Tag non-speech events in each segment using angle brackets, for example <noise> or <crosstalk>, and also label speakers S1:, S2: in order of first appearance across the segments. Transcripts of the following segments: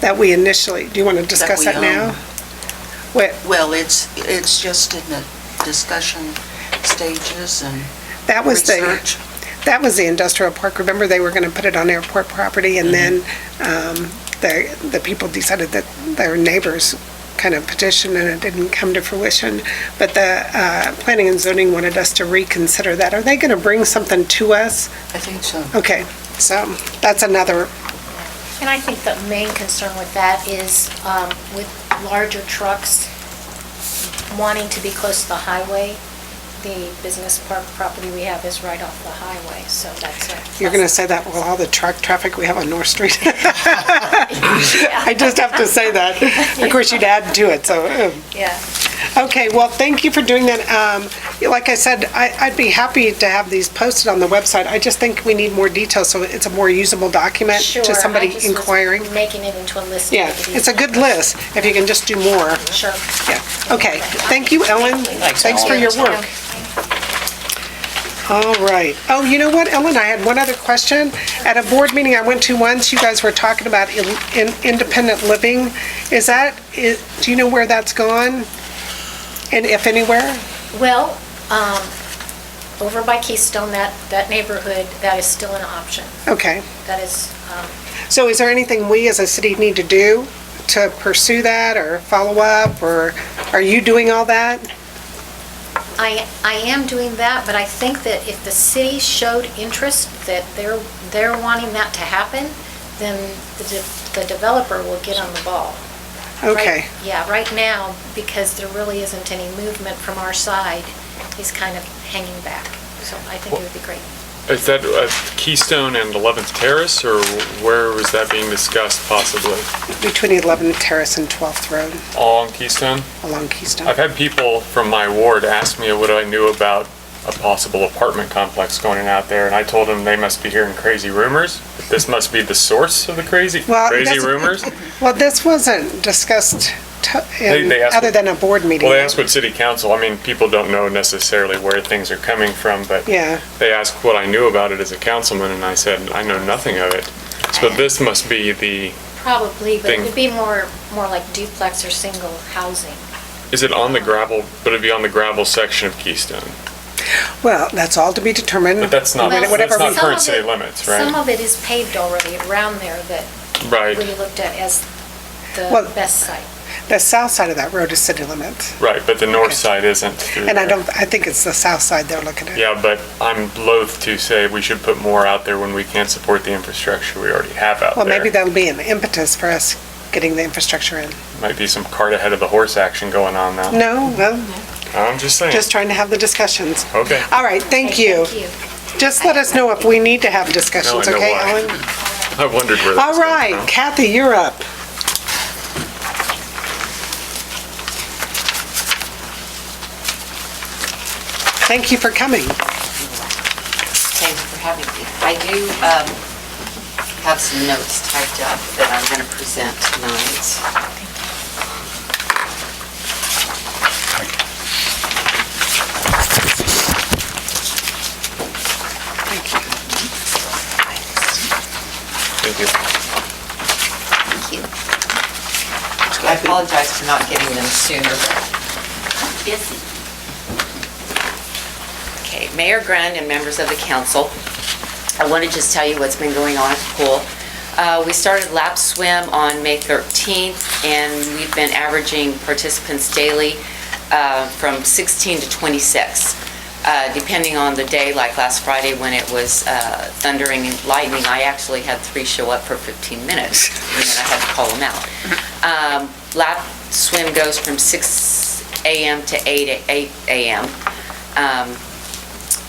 S1: that we initially, do you want to discuss
S2: we
S1: that now?
S2: own. Well, it's, it's just in the discussion stages and
S1: That was the,
S2: research.
S1: that was the industrial park. Remember, they were going to put it on airport property, and then
S2: Mm-hmm.
S1: um, the, the people decided that their neighbors kind of petitioned, and it didn't come to fruition. But the uh, planning and zoning wanted us to reconsider that. Are they going to bring something to us?
S2: I think so.
S1: Okay, so that's another,
S3: And I think the main concern with that is um, with larger trucks wanting to be close to the highway, the business park property we have is right off the highway, so that's a...
S1: you're going to say that with all the truck traffic we have on North Street? <laughs> I just have to say that.
S2: <laughs>
S1: Of course, you'd add to it, so. um,
S3: Yeah.
S1: Okay, well, thank you for doing that. Um, Like I said, I- I'd be happy to have these posted on the website. I just think we need more detail, so it's a more usable document
S3: Sure.
S1: to
S3: I
S1: somebody
S3: just was
S1: inquiring.
S3: Making it into a list.
S1: Yeah, it's a good list, if you can just do more.
S3: Sure.
S1: Yeah, okay. Thank you, Ellen.
S3: Thanks,
S1: Thanks for
S3: Ellen.
S1: your work. All right. Oh, you know what, Ellen, I had one other question. At a board meeting I went to once, you guys were talking about in- in- independent living. Is that, i- do you know where that's gone? And if anywhere?
S3: Well, um, over by Keystone, that, that neighborhood, that is still an option.
S1: Okay.
S3: That is, um,
S1: So is there anything we as a city need to do to pursue that or follow up, or are you doing all that?
S3: I, I am doing that, but I think that if the city showed interest that they're, they're wanting that to happen, then the de- the developer will get on the ball. Right-
S1: Okay,
S3: Yeah, right now, because there really isn't any movement from our side, he's kind of hanging back. So I think it would be great.
S4: Is that uh, Keystone and 11th Terrace, or where was that being discussed possibly?
S1: between 11th Terrace and 12th Road
S4: All on Keystone?
S1: along Keystone.
S4: I've had people from my ward ask me what I knew about a possible apartment complex going out there, and I told them they must be hearing crazy rumors. This must be the source of the crazy,
S1: Well, it
S4: crazy
S1: doesn't- <laughs>
S4: rumors.
S1: Well, this wasn't discussed to-
S4: They-
S1: in,
S4: they asked-
S1: other than a board meeting.
S4: Well, they ask what city council, I mean, people don't know necessarily where things are coming from, but
S1: Yeah,
S4: they asked what I knew about it as a councilman, and I said, I know nothing of it. So this must be the,
S3: Uh, Probably, but it
S4: Thing.
S3: would be more, more like duplex or single housing.
S4: is it on the gravel, would it be on the gravel section of Keystone?
S1: well, that's all to be determined.
S4: But that's
S1: Mm.
S4: not,
S1: Well,
S4: that's
S1: whatever
S4: not
S1: we-
S4: current
S3: Some of
S4: city
S3: it-
S4: limits,
S3: Some
S4: right?
S3: of it is paved already around there that we
S4: Right,
S3: looked at as
S1: Well-
S3: the best site.
S1: The south side of that road is city limits,
S4: right, but the north side isn't through
S1: and I
S4: there.
S1: don't, I think it's the south side they're looking at.
S4: Yeah, but I'm loath to say we should put more out there when we can't support the infrastructure we already have out
S1: Well, maybe
S4: there.
S1: that'll be an impetus for us getting the infrastructure in.
S4: Might be some cart ahead of the horse action going on now.
S1: No, well,
S4: I'm just saying.
S1: just trying to have the discussions.
S4: Okay.
S1: All right, thank
S3: Okay,
S1: you.
S3: Thank you.
S1: Just let us know if we need to have discussions,
S4: Now I know
S1: okay,
S4: why.
S1: Ellen?
S4: I wondered where that was
S1: All
S4: coming
S1: right,
S4: from.
S1: Kathy, you're up. Thank you for coming.
S5: Thank you for having me. I do um, have some notes typed up that I'm going to present tonight.
S4: Thank you.
S5: Thank you. I apologize for not getting them sooner. but I'm Busy. Okay, Mayor Grund and members of the council, I want to just tell you what's been going on at the pool. Uh, We started lap swim on May 13th, and we've been averaging participants daily uh, from 16 to 26, uh, depending on the day, like last Friday when it was uh, thundering and lightning. I actually had three show up for 15 minutes, and then I had to call them out. Um, Lap swim goes from 6 a.m. to 8 a- 8 a.m. Um,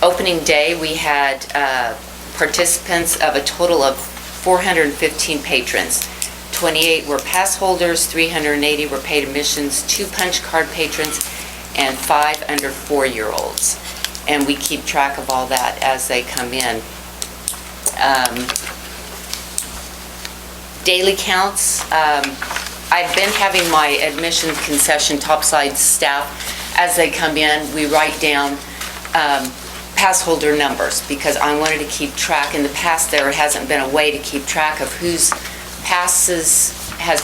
S5: opening day, we had uh, participants of a total of 415 patrons. 28 were pass holders, 380 were paid admissions, two punch card patrons, and five under four-year-olds. And we keep track of all that as they come in. Um, Daily counts, um, I've been having my admission concession topside staff, as they come in, we write down um, pass holder numbers, because I wanted to keep track. In the past, there hasn't been a way to keep track of whose passes